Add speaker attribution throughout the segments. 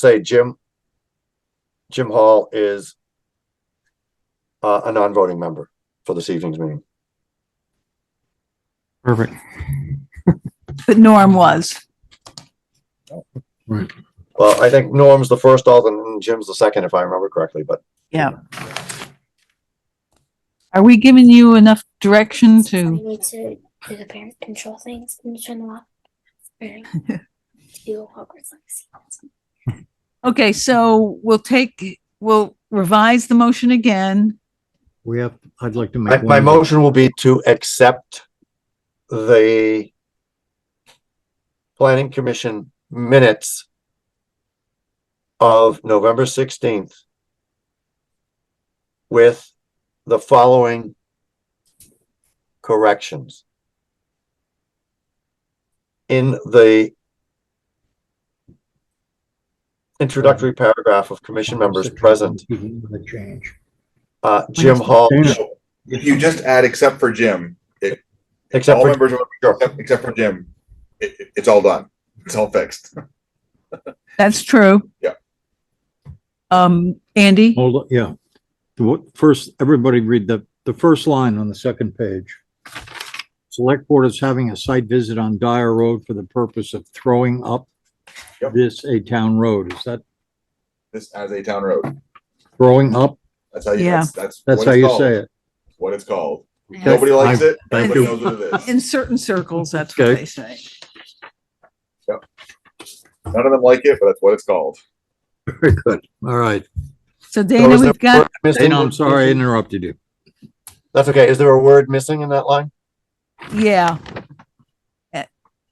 Speaker 1: say Jim, Jim Hall is uh, a non-voting member for this evening's meeting.
Speaker 2: Perfect.
Speaker 3: But Norm was.
Speaker 1: Well, I think Norm's the first alternate and Jim's the second, if I remember correctly, but
Speaker 3: Are we giving you enough direction to,
Speaker 4: I need to do the parent control things and turn them off. Alright. Do Hogwarts Legacy.
Speaker 3: okay, so we'll take, we'll revise the motion again.
Speaker 2: We have, I'd like to
Speaker 1: my,
Speaker 2: make.
Speaker 1: my
Speaker 2: one-
Speaker 1: motion will be to accept the planning commission minutes of November sixteenth with the following corrections. In the introductory paragraph of commission members present,
Speaker 2: The change.
Speaker 1: uh, Jim Hall,
Speaker 5: No, If you just add except for Jim,
Speaker 1: except
Speaker 5: all
Speaker 1: for
Speaker 5: members, except- except for Jim, it, it- it's all done. It's all fixed.
Speaker 3: That's true.
Speaker 5: Yeah.
Speaker 3: Um, Andy,
Speaker 2: Hold, on, yeah. The wo- First, everybody read the, the first line on the second page. Select Board is having a site visit on Dyer Road for the purpose of throwing up
Speaker 5: Yep.
Speaker 2: this a town road. Is that
Speaker 5: This as a town road.
Speaker 2: throwing up?
Speaker 5: That's how you,
Speaker 3: Yeah.
Speaker 5: that's, that's.
Speaker 2: That's
Speaker 5: what
Speaker 2: how
Speaker 5: it's
Speaker 2: you
Speaker 5: called.
Speaker 2: say it.
Speaker 5: What it's called.
Speaker 3: Yeah.
Speaker 5: Nobody likes
Speaker 2: I-
Speaker 5: it.
Speaker 2: thank
Speaker 5: Everybody
Speaker 2: you.
Speaker 5: knows what it is.
Speaker 3: in certain circles, that's what
Speaker 2: Okay.
Speaker 3: they say.
Speaker 5: None of them like it, but that's what it's called.
Speaker 2: Very good. All right.
Speaker 1: So
Speaker 3: So Dana,
Speaker 1: is there
Speaker 3: we've got,
Speaker 1: a word missing?
Speaker 2: Dana, I'm sorry I interrupted you.
Speaker 1: That's okay. Is there a word missing in that line?
Speaker 3: yeah. Eh,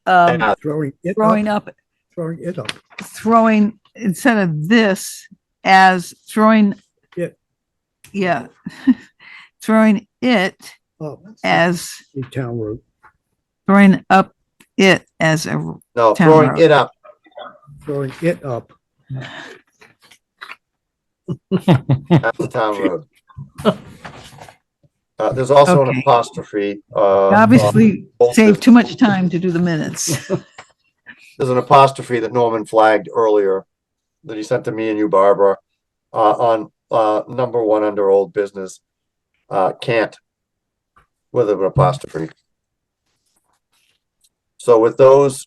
Speaker 3: Um,
Speaker 1: Uh,
Speaker 6: Throwing it up,
Speaker 3: throwing up,
Speaker 6: throwing it up.
Speaker 3: throwing, instead of this, as throwing.
Speaker 6: Yeah.
Speaker 3: Yeah. Throwing it
Speaker 6: Oh,
Speaker 3: as,
Speaker 6: the town road.
Speaker 3: throwing up it as a
Speaker 1: No,
Speaker 3: Town
Speaker 1: throwing
Speaker 3: road.
Speaker 1: it up.
Speaker 6: Throwing it up.
Speaker 1: That's the town road. Uh, there's also an
Speaker 3: Okay.
Speaker 1: apostrophe,
Speaker 7: Oh,
Speaker 1: uh.
Speaker 3: Obviously,
Speaker 7: um,
Speaker 1: on-
Speaker 3: save too much time to do the minutes.
Speaker 1: There's an apostrophe that Norman flagged earlier that he sent to me and you, Barbara, uh, on, uh, number one under old business, uh, can't with an apostrophe. So with those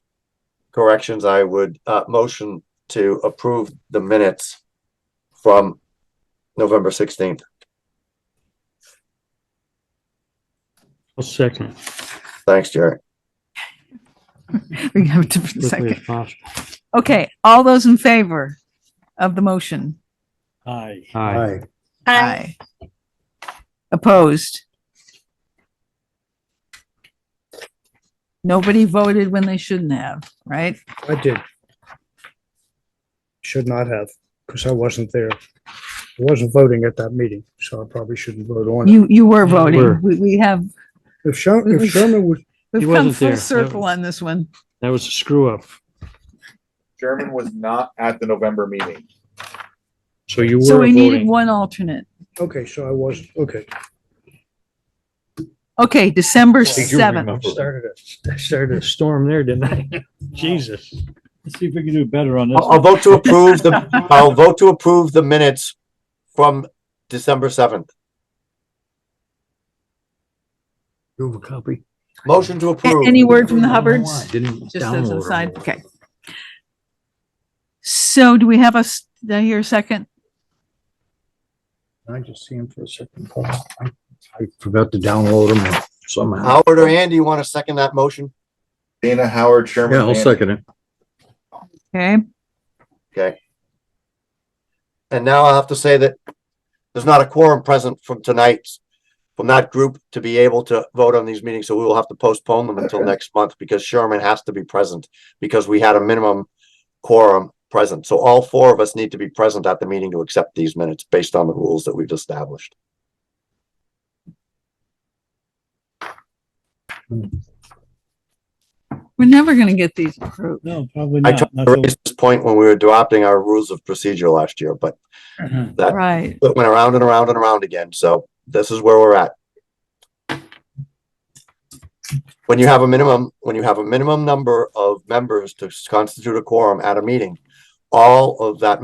Speaker 1: corrections, I would, uh, motion to approve the minutes from November sixteenth.
Speaker 7: I'll second.
Speaker 1: Thanks, Jerry.
Speaker 3: We have to for a
Speaker 7: Quickly
Speaker 3: second.
Speaker 7: as possible.
Speaker 3: Okay, all those in favor of the motion?
Speaker 7: Aye.
Speaker 2: Hi.
Speaker 3: Aye. Opposed? Nobody voted when they shouldn't have, right?
Speaker 6: I did. Should not have, because I wasn't there. I wasn't voting at that meeting, so I probably shouldn't vote on it.
Speaker 3: You, you were
Speaker 7: You were.
Speaker 3: voting. We, we have,
Speaker 6: If Sher- if Sherman was,
Speaker 3: we've come
Speaker 7: wasn't
Speaker 3: full
Speaker 7: there.
Speaker 3: circle on this one.
Speaker 7: That was a screw up.
Speaker 5: Sherman was not at the November meeting.
Speaker 7: So you
Speaker 3: So
Speaker 7: were
Speaker 3: we needed
Speaker 7: voting.
Speaker 3: one alternate.
Speaker 6: okay, so I was, okay.
Speaker 3: Okay, December
Speaker 7: I do
Speaker 3: 7th.
Speaker 7: remember.
Speaker 6: Started it.
Speaker 7: I started a storm there, didn't I? Jesus. Let's see if we can do better on this.
Speaker 1: I'll, I'll vote to approve the, I'll vote to approve the minutes from December seventh.
Speaker 2: Do a copy.
Speaker 1: Motion to approve.
Speaker 3: Any word from the Hubbards?
Speaker 2: Didn't
Speaker 3: Just as
Speaker 2: download
Speaker 3: an
Speaker 2: 'em.
Speaker 3: aside, okay. So do we have a, s- did I hear a second?
Speaker 2: I just see him for a second. I I forgot to download him somehow.
Speaker 1: Howard or Andy, you want to second that motion?
Speaker 5: Dana Howard, Sherman.
Speaker 2: Yeah, I'll
Speaker 5: Manning.
Speaker 2: second it.
Speaker 3: Okay,
Speaker 1: And now I have to say that there's not a quorum present from tonight's, from that group to be able to vote on these meetings, so we will have to postpone them until
Speaker 5: Okay.
Speaker 1: next month because Sherman has to be present because we had a minimum quorum present. So all four of us need to be present at the meeting to accept these minutes based on the rules that we've established.
Speaker 3: we're never gonna get these approved.
Speaker 7: No, probably
Speaker 1: I
Speaker 7: not.
Speaker 1: tried to raise this point when we were adopting our rules of procedure last year, but
Speaker 7: Nothing-
Speaker 1: that
Speaker 3: Right.
Speaker 1: it went around and around and around again. So this is where we're at. When you have a minimum, when you have a minimum number of members to constitute a quorum at a meeting, all of that